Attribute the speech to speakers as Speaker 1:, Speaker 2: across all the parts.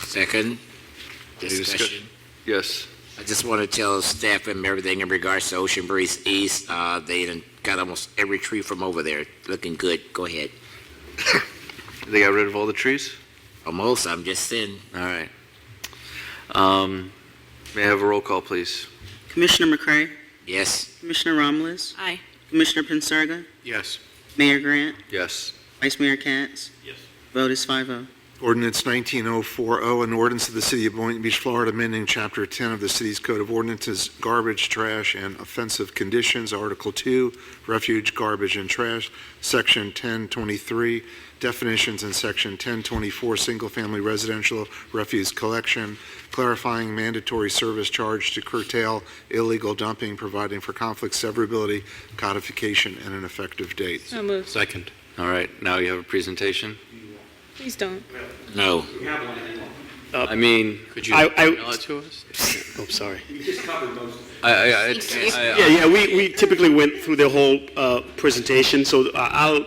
Speaker 1: Second,
Speaker 2: Any discuss-
Speaker 1: discussion.
Speaker 2: Yes.
Speaker 1: I just want to tell staff and everything in regards to Ocean Breeze East, uh, they done got almost every tree from over there, looking good. Go ahead.
Speaker 2: They got rid of all the trees?
Speaker 1: Almost, I'm just saying.
Speaker 2: All right. Um, may I have a roll call, please?
Speaker 3: Commissioner McCray,
Speaker 1: Yes,
Speaker 3: Commissioner Romulus,
Speaker 4: Aye.
Speaker 3: Commissioner Pincirga,
Speaker 5: Yes.
Speaker 3: Mayor Grant,
Speaker 2: Yes.
Speaker 3: Vice Mayor Katz.
Speaker 5: Yes.
Speaker 3: Vote is five oh.
Speaker 6: Ordinance 19040, oh, an ordinance of the City of Boynton Beach, Florida, amending Chapter 10 of the city's Code of Ordinances, garbage, trash, and offensive conditions, Article 2, refuge, garbage, and trash, Section 1023, definitions, and Section 1024, single-family residential refuse collection, clarifying mandatory service charge to curtail illegal dumping, providing for conflict severability, codification, and an effective date.
Speaker 4: So moved.
Speaker 5: Second.
Speaker 2: All right, now you have a presentation?
Speaker 4: Please don't.
Speaker 1: no.
Speaker 2: I mean,
Speaker 5: Uh, Could you
Speaker 7: I- I-
Speaker 5: email it to us?
Speaker 7: Oh, sorry.
Speaker 2: I, I, I-
Speaker 4: Excuse me.
Speaker 2: I-
Speaker 7: Yeah, yeah, we, we typically went through the whole uh, presentation, so uh, I'll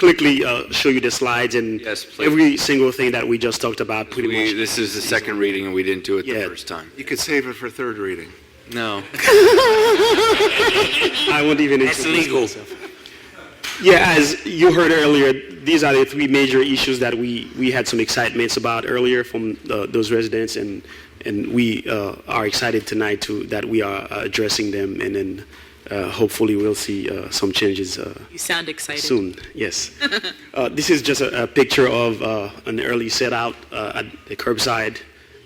Speaker 7: quickly uh, show you the slides and
Speaker 2: Yes, please.
Speaker 7: every single thing that we just talked about, pretty
Speaker 2: we,
Speaker 7: much.
Speaker 2: this is the second reading and we didn't do it the
Speaker 7: Yeah.
Speaker 2: first time.
Speaker 6: You could save it for third reading.
Speaker 2: No.
Speaker 7: I won't even
Speaker 1: That's
Speaker 7: introduce
Speaker 1: legal.
Speaker 7: myself. Yeah, as you heard earlier, these are the three major issues that we, we had some excitements about earlier from uh, those residents, and, and we uh, are excited tonight to, that we are uh, addressing them, and then uh, hopefully we'll see uh, some changes uh,
Speaker 4: You sound excited.
Speaker 7: Soon, yes. uh, this is just a, a picture of uh, an early set out uh, at the curbside.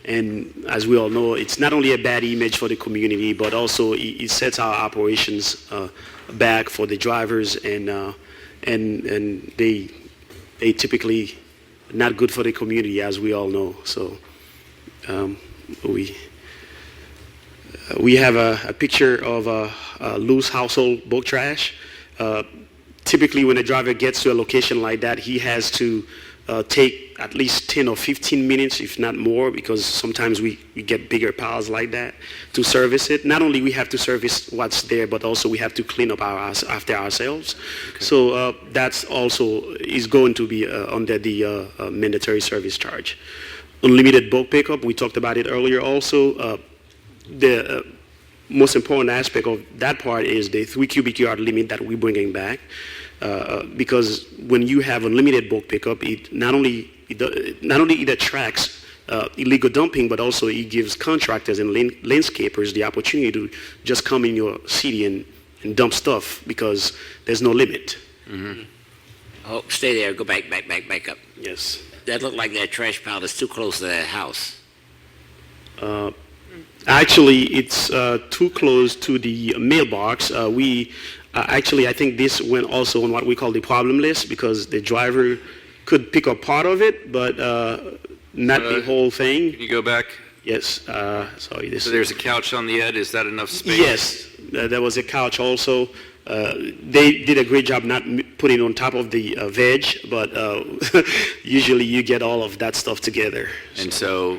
Speaker 7: And as we all know, it's not only a bad image for the community, but also it, it sets our operations uh, back for the drivers, and uh, and and they they typically not good for the community, as we all know. So um, we uh, we have a, a picture of uh, uh, loose household book trash. Uh, typically when a driver gets to a location like that, he has to uh, take at least 10 or 15 minutes, if not more, because sometimes we, we get bigger piles like that to service it. Not only we have to service what's there, but also we have to clean up our, ours- after ourselves. So uh, that's also is going to be uh, under the uh, uh, mandatory service charge. Unlimited bulk pickup, we talked about it earlier also. Uh, the uh, most important aspect of that part is the three cubic yard limit that we're bringing back. Uh, uh, because when you have unlimited bulk pickup, it not only it, do- not only it attracts uh, illegal dumping, but also it gives contractors and lan- landscapers the opportunity to just come in your city and, and dump stuff because there's no limit.
Speaker 1: Oh, stay there. Go back, back, back, back up.
Speaker 7: Yes.
Speaker 1: That looked like that trash pile is too close to that house.
Speaker 7: Actually, it's uh, too close to the mailbox. Uh, we uh, actually, I think this went also on what we call the problem list because the driver could pick up part of it, but uh, not the
Speaker 2: Uh,
Speaker 7: whole thing.
Speaker 2: Can you go back?
Speaker 7: Yes. Uh, sorry. This.
Speaker 2: So there's a couch on the ed. Is that enough space?
Speaker 7: Yes, uh, there was a couch also. Uh, They did a great job not m- putting on top of the uh, veg, but uh, usually you get all of that stuff together.
Speaker 2: And so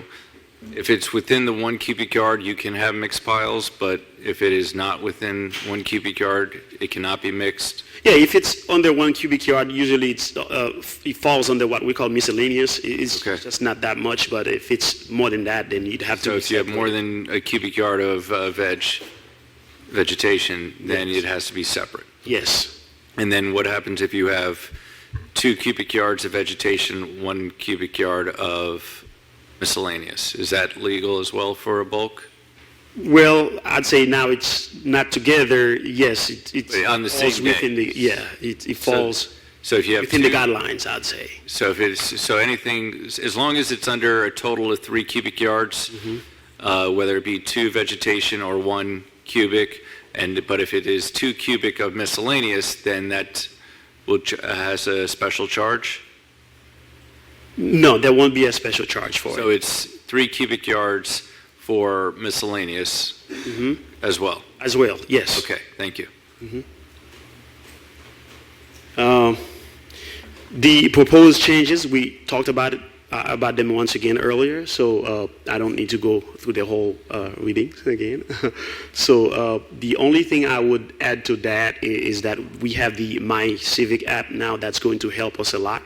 Speaker 2: if it's within the one cubic yard, you can have mixed piles, but if it is not within one cubic yard, it cannot be mixed.
Speaker 7: Yeah, if it's under one cubic yard, usually it's, uh, f- it falls under what we call miscellaneous. I- It's
Speaker 2: Okay.
Speaker 7: just not that much, but if it's more than that, then you'd have to.
Speaker 2: So if you have more than a cubic yard of uh, veg, vegetation, then it has to be separate.
Speaker 7: Yes.
Speaker 2: And then what happens if you have two cubic yards of vegetation, one cubic yard of miscellaneous? Is that legal as well for a bulk?
Speaker 7: Well, I'd say now it's not together. Yes, it, it's
Speaker 2: On the
Speaker 7: falls
Speaker 2: same day.
Speaker 7: within the yeah, it, it falls
Speaker 2: So if you have
Speaker 7: within the
Speaker 2: two-
Speaker 7: guidelines. I'd say.
Speaker 2: So if it's, so anything, as long as it's under a total of three cubic yards, uh, whether it be two vegetation or one cubic, and, but if it is two cubic of miscellaneous, then that will, ch- uh, has a special charge?
Speaker 7: No, there won't be a special charge for
Speaker 2: So
Speaker 7: it.
Speaker 2: it's three cubic yards for miscellaneous as well?
Speaker 7: as well. Yes.
Speaker 2: Okay, thank you.
Speaker 7: Um, The proposed changes, we talked about, it- uh, about them once again earlier, so uh, I don't need to go through the whole uh, reading again. So uh, the only thing I would add to that i- is that we have the My Civic app now that's going to help us a lot.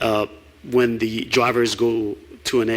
Speaker 7: Uh, When the drivers go to an